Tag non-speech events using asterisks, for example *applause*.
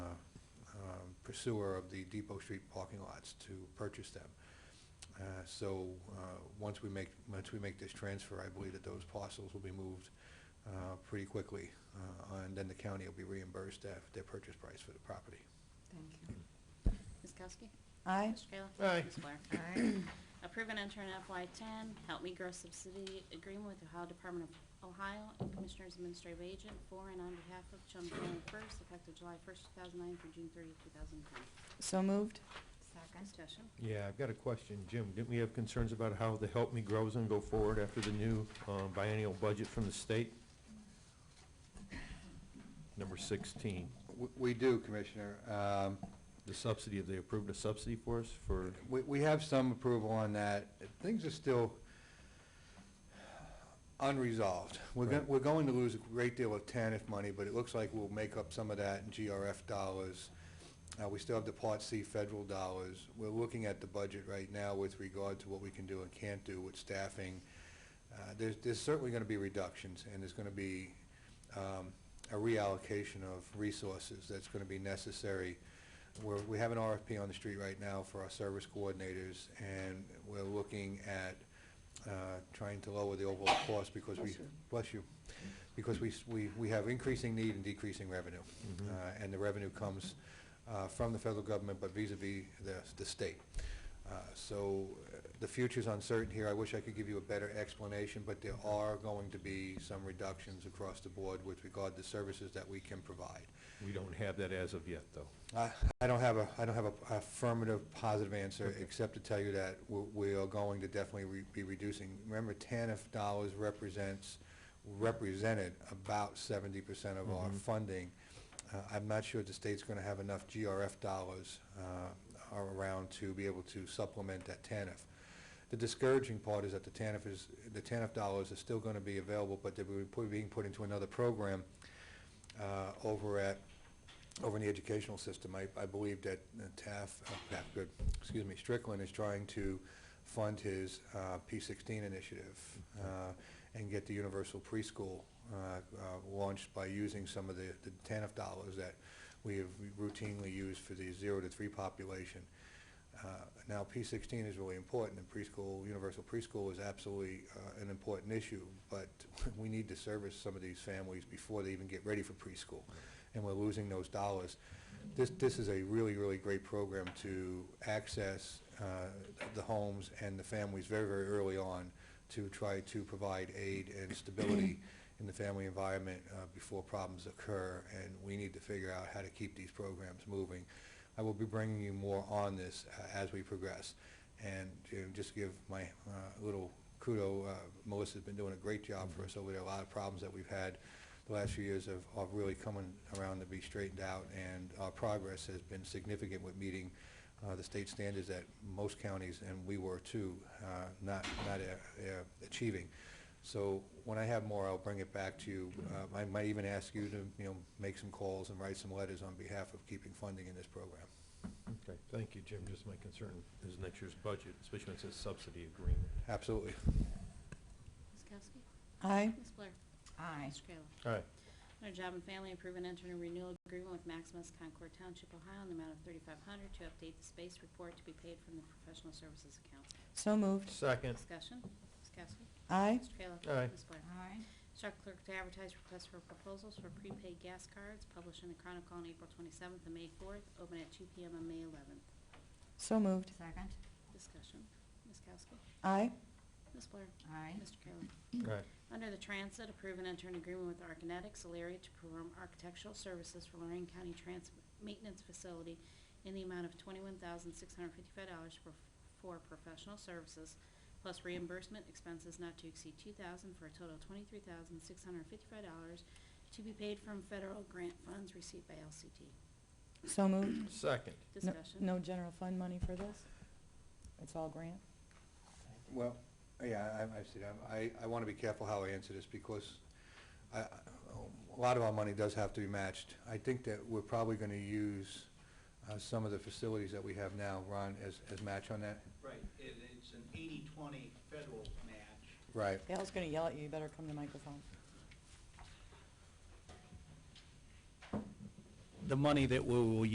uh, pursuer of the Depot Street parking lots to purchase them. Uh, So uh, once we make, once we make this transfer, I believe that those parcels will be moved uh, pretty quickly, uh, and then the county will be reimbursed their, their purchase price for the property. Thank you. Ms. Kowski? Aye. Mr. Kayla? Aye. Ms. Blair? Aye. Approve and enter an FY10 Help Me Grow Subsidy Agreement with Ohio Department of Ohio and Commissioners Administrative Agent for and on behalf of Chum County First, effective July 1st, 2009 through June 30th, 2010. *clears throat* So moved. Discussion. Yeah, I've got a question, Jim. Didn't we have concerns about how the Help Me Grows and go forward after the new uh, biennial budget from the state? Number 16, W- We do, Commissioner. Um, the subsidy, have they approved a subsidy for us for, We, we have some approval on that. Things are still unresolved. We're, go- Right. we're going to lose a great deal of TANF money, but it looks like we'll make up some of that in GRF dollars. Uh, we still have the Part C federal dollars. We're looking at the budget right now with regard to what we can do and can't do with staffing. Uh, There's, there's certainly going to be reductions, and there's going to be um, a reallocation of resources that's going to be necessary. We're, we have an RFP on the street right now for our service coordinators, and we're looking at uh, trying to lower the overall cost because we, bless you, because we, s- we, we have increasing need and decreasing revenue. Uh, And the revenue comes uh, from the federal government, but vis-à-vis the, the state. Uh, So uh, the future's uncertain here. I wish I could give you a better explanation, but there are going to be some reductions across the board with regard to services that we can provide. we don't have that as of yet, though. I I don't have a, I don't have a affirmative, positive answer, except to tell you that we- we are going to definitely re- be reducing. Remember, TANF dollars represents, represented about seventy percent of our funding. Uh, I'm not sure the state's going to have enough GRF dollars uh, around to be able to supplement that TANF. The discouraging part is that the TANF is, the TANF dollars are still going to be available, but they're being put- being put into another program uh, over at over in the educational system. I, I believe that uh, Taft, uh, Taft, good, excuse me, Strickland is trying to fund his uh, P-16 initiative uh, and get the universal preschool uh, uh, launched by using some of the the TANF dollars that we have routinely used for the zero to three population. Uh, Now, P-16 is really important, and preschool, universal preschool is absolutely uh, an important issue, but *laughs* we need to service some of these families before they even get ready for preschool, and we're losing those dollars. This, this is a really, really great program to access uh, the homes and the families very, very early on to try to provide aid and stability in the family environment uh, before problems occur, and we need to figure out how to keep these programs moving. I will be bringing you more on this uh, as we progress. And to just give my uh, little kudo, uh, Melissa's been doing a great job for us over there. A lot of problems that we've had the last few years have are really coming around to be straightened out, and our progress has been significant with meeting uh, the state standards that most counties, and we were too, uh, not not uh, uh, achieving. So when I have more, I'll bring it back to you. Uh, I might even ask you to, you know, make some calls and write some letters on behalf of keeping funding in this program. Okay, thank you, Jim. Just my concern is next year's budget, especially when it says subsidy agreement. Absolutely. Ms. Kowski? Aye. Ms. Blair? Aye. Mr. Kayla? All right, Under Job and Family, approve and enter a renewal agreement with Maximus Concord Township, Ohio, in the amount of 3500 to update the space report to be paid from the professional services account. So moved. second, Discussion. Ms. Kowski? Aye. Mr. Kayla? Aye. Ms. Blair? Aye. Instruct clerk to advertise requests for proposals for prepaid gas cards published in the Chronicle on April 27th and May 4th, open at 2 PM on May 11th. So moved. Second. Discussion. Ms. Kowski? Aye. Ms. Blair? Aye. Mr. Kayla? all right, Under the Transit, approve and enter an agreement with Arkinetics, Alaria to perform architectural services for Lorraine County Transit Maintenance Facility in the amount of $21,655 for for professional services, plus reimbursement expenses not to exceed 2000 for a total of $23,655 to be paid from federal grant funds received by LCT. So moved. second. No- Discussion. No general fund money for this? It's all grant? Well, yeah, I, I see that. I, I want to be careful how I answer this because I, I- a lot of our money does have to be matched. I think that we're probably going to use uh, some of the facilities that we have now, Ron, as, as match on that. Right, it, it's an eighty-twenty federal match. Right. Dale's gonna yell at you, you better come to microphone. The money that we will